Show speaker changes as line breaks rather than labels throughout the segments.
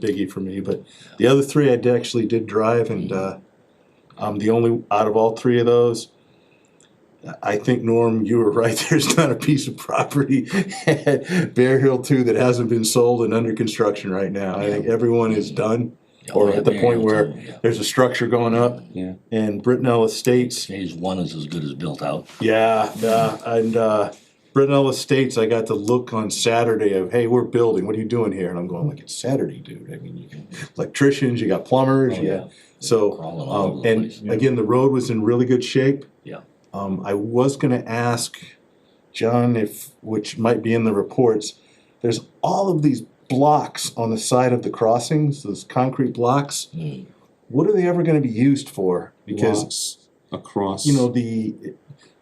biggie for me, but the other three I did, actually did drive and, uh, I'm the only, out of all three of those, I- I think, Norm, you were right, there's not a piece of property at Bear Hill Two that hasn't been sold and under construction right now. I think everyone is done,
Oh,
or at the point where there's a structure going up.
Yeah.
And Brittenell Estates,
Phase one is as good as built out.
yeah, uh, and uh, Brittenell Estates, I got the look on Saturday of, hey, we're building, what are you doing here? And I'm going, like, it's Saturday, dude. I mean, you can, electricians, you got plumbers,
Oh,
you
yeah.
got- so,
Crawling all
um,
over the place.
and again, the road was in really good shape.
Yeah.
Um, I was gonna ask John if, which might be in the reports, there's all of these blocks on the side of the crossings, those concrete blocks.
Mm.
What are they ever gonna be used for? Because
Lots across.
you know the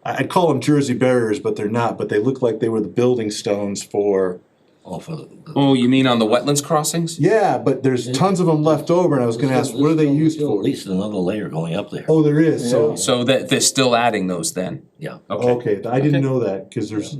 I- I'd call them Jersey barriers, but they're not. But they look like they were the building stones for.
Oh, for the,
Oh, you mean on the wetlands crossings?
Yeah, but there's tons of them left over, and I was going to ask, what are they used
at
for?
least another layer going up there.
Oh, there is. So
So that they're still adding those then?
Yeah.
Okay.
okay, I didn't
Okay.
know that because there's.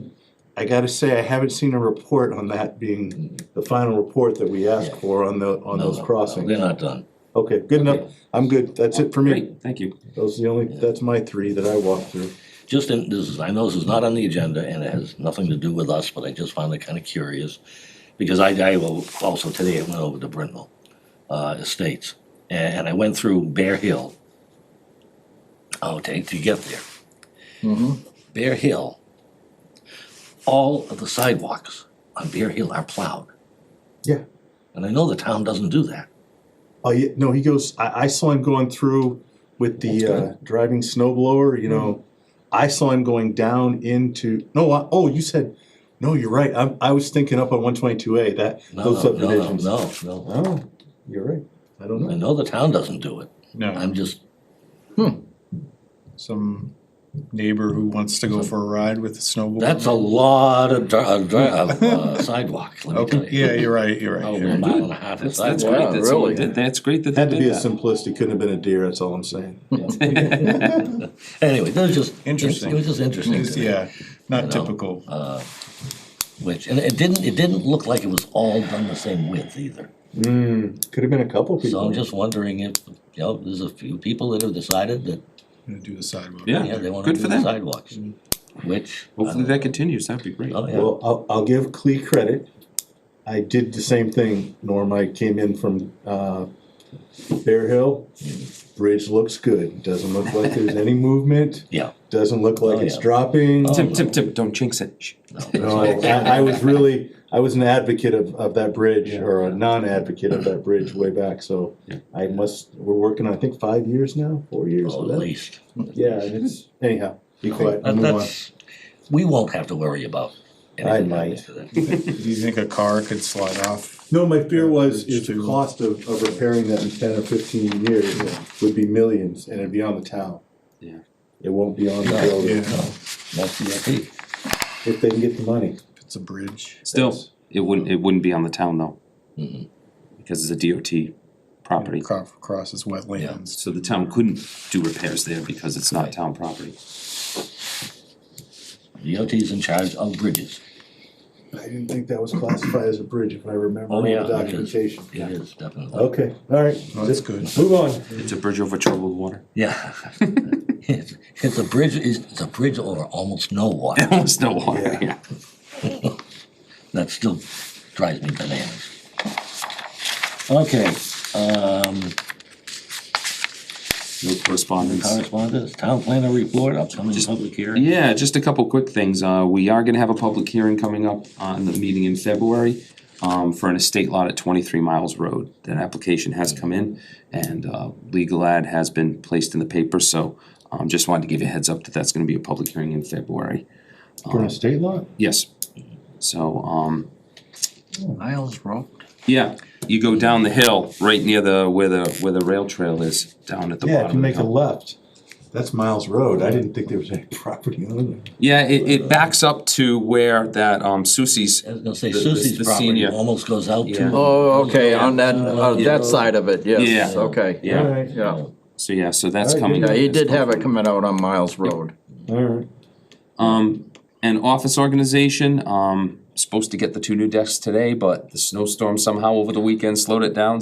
I got to say, I haven't seen a report on that being the final report that we asked
Yeah.
for on the on
No,
those
no, no,
crossings.
They're not done.
Okay, good enough. I'm good. That's it for me.
Great, thank you.
Those are the only. That's my three that I walked through.
Just in, this is, I know this is not on the agenda and it has nothing to do with us, but I just found it kind of curious. Because I, I will, also today I went over to Brittenell, uh, Estates, and, and I went through Bear Hill. Oh, to, to get there.
Mm-hmm.
Bear Hill, all of the sidewalks on Bear Hill are plowed.
Yeah.
And I know the town doesn't do that.
Oh yeah, no, he goes. I, I saw him going through with the uh, driving snow blower.
Hmm.
You know, I saw him going down into. No, I, oh, you said. No, you're right. I, I was thinking up on 122A that
No,
those
no, no, no,
subdivisions.
no, no.
Oh, you're right. I don't
I
know.
know the town doesn't do it.
No,
I'm just,
some neighbor who wants to go for a ride with a snowboard.
that's a lot of dri- of dri- of, uh, sidewalk, let me
Okay,
tell you.
yeah, you're right, you're right.
Probably
you're
a
right.
mile and a half of
That's,
sidewalk.
that's great,
Wow,
that's all,
really?
did- that's great that they
Had to
did
be a
that.
simplistic. Couldn't have been a deer. That's all I'm saying.
Hmm. Anyway, that was just.
Interesting.
It was just interesting
It's-
to me.
Yeah, not
know, uh,
typical.
Which, and it didn't, it didn't look like it was all done the same width either.
Mm, could have been a couple
So
Mm-hmm.
people.
I'm just wondering if, you know, there's a few people that have decided that
Gonna do the sidewalk.
Yeah.
Yeah, they wanna
Good
do
for
the
them.
sidewalks,
Mm-hmm.
which. I
Hopefully
don't-
that continues, that'd be great.
Oh, yeah,
well, I'll, I'll give Clee credit. I did the same thing. Norm, I came in from uh, Bear Hill. Bridge looks good. Doesn't look like there's any movement.
yeah.
Doesn't look like
Oh,
it's
yeah.
dropping.
Tim, Tim, Tim, don't jinx it. Shh.
No, I, I was really, I was an advocate of, of that bridge, or a non-advocate of that bridge way back, so I must, we're working, I think, five years now, four years
Oh,
with that.
at least.
Yeah, and it's, anyhow, be quiet,
That-
move on.
that's, we won't have to worry about anything
might.
happening to that.
Do you think a car could slide off?
No, my fear was, is the
Bridge too.
cost of, of repairing that in ten or fifteen years would be millions, and it'd be on the town.
Yeah.
It won't be on the
No.
building,
Yeah,
That's the IP.
if they can get the money.
if it's a bridge.
Still,
Yes.
it wouldn't, it wouldn't be on the town though.
Mm-hmm.
Mhm.
Because it's a DOT property,
Cro- Crosses wetlands.
so the town couldn't do repairs there because it's not town property.
DOT's in charge of bridges.
I didn't think that was classified as a bridge, if I remember
Oh,
all the
yeah, it is.
documentation.
It is definitely.
Okay, all right.
Oh, that's good.
Move on.
It's a bridge over troubled water.
Yeah. It's it's a bridge, it's it's a bridge over almost no water.
Almost no water,
Yeah.
yeah.
That still drives me bananas. Okay, um,
No correspondence.
correspondence, town planner report, upcoming public hearing.
Yeah, just a couple quick things. Uh, we are gonna have a public hearing coming up on the meeting in February um, for an estate lot at twenty-three Miles Road. That application has come in and, uh, legal ad has been placed in the paper, so, um, just wanted to give you a heads up that that's gonna be a public hearing in February.
For a state law?
Yes. So, um,
Miles Road.
yeah, you go down the hill, right near the, where the, where the rail trail is, down at the
Yeah, if you
bottom of
make
the
a
hill.
left, that's Miles Road. I didn't think there was any property on it.
Yeah, it, it backs up to where that, um, Susie's,
I was gonna say
The- the-
Susie's
the
property
senior.
almost goes out
Yeah.
to.
Oh, okay, on that, on that side of it, yes,
Yeah.
okay.
Yeah.
All right,
Yeah,
so yeah, so that's
Alright,
coming.
yeah,
up
he
as
did
well.
have it coming out on Miles Road.
all right.
Um, an office organization, um, supposed to get the two new decks today, but the snowstorm somehow over the weekend slowed it down,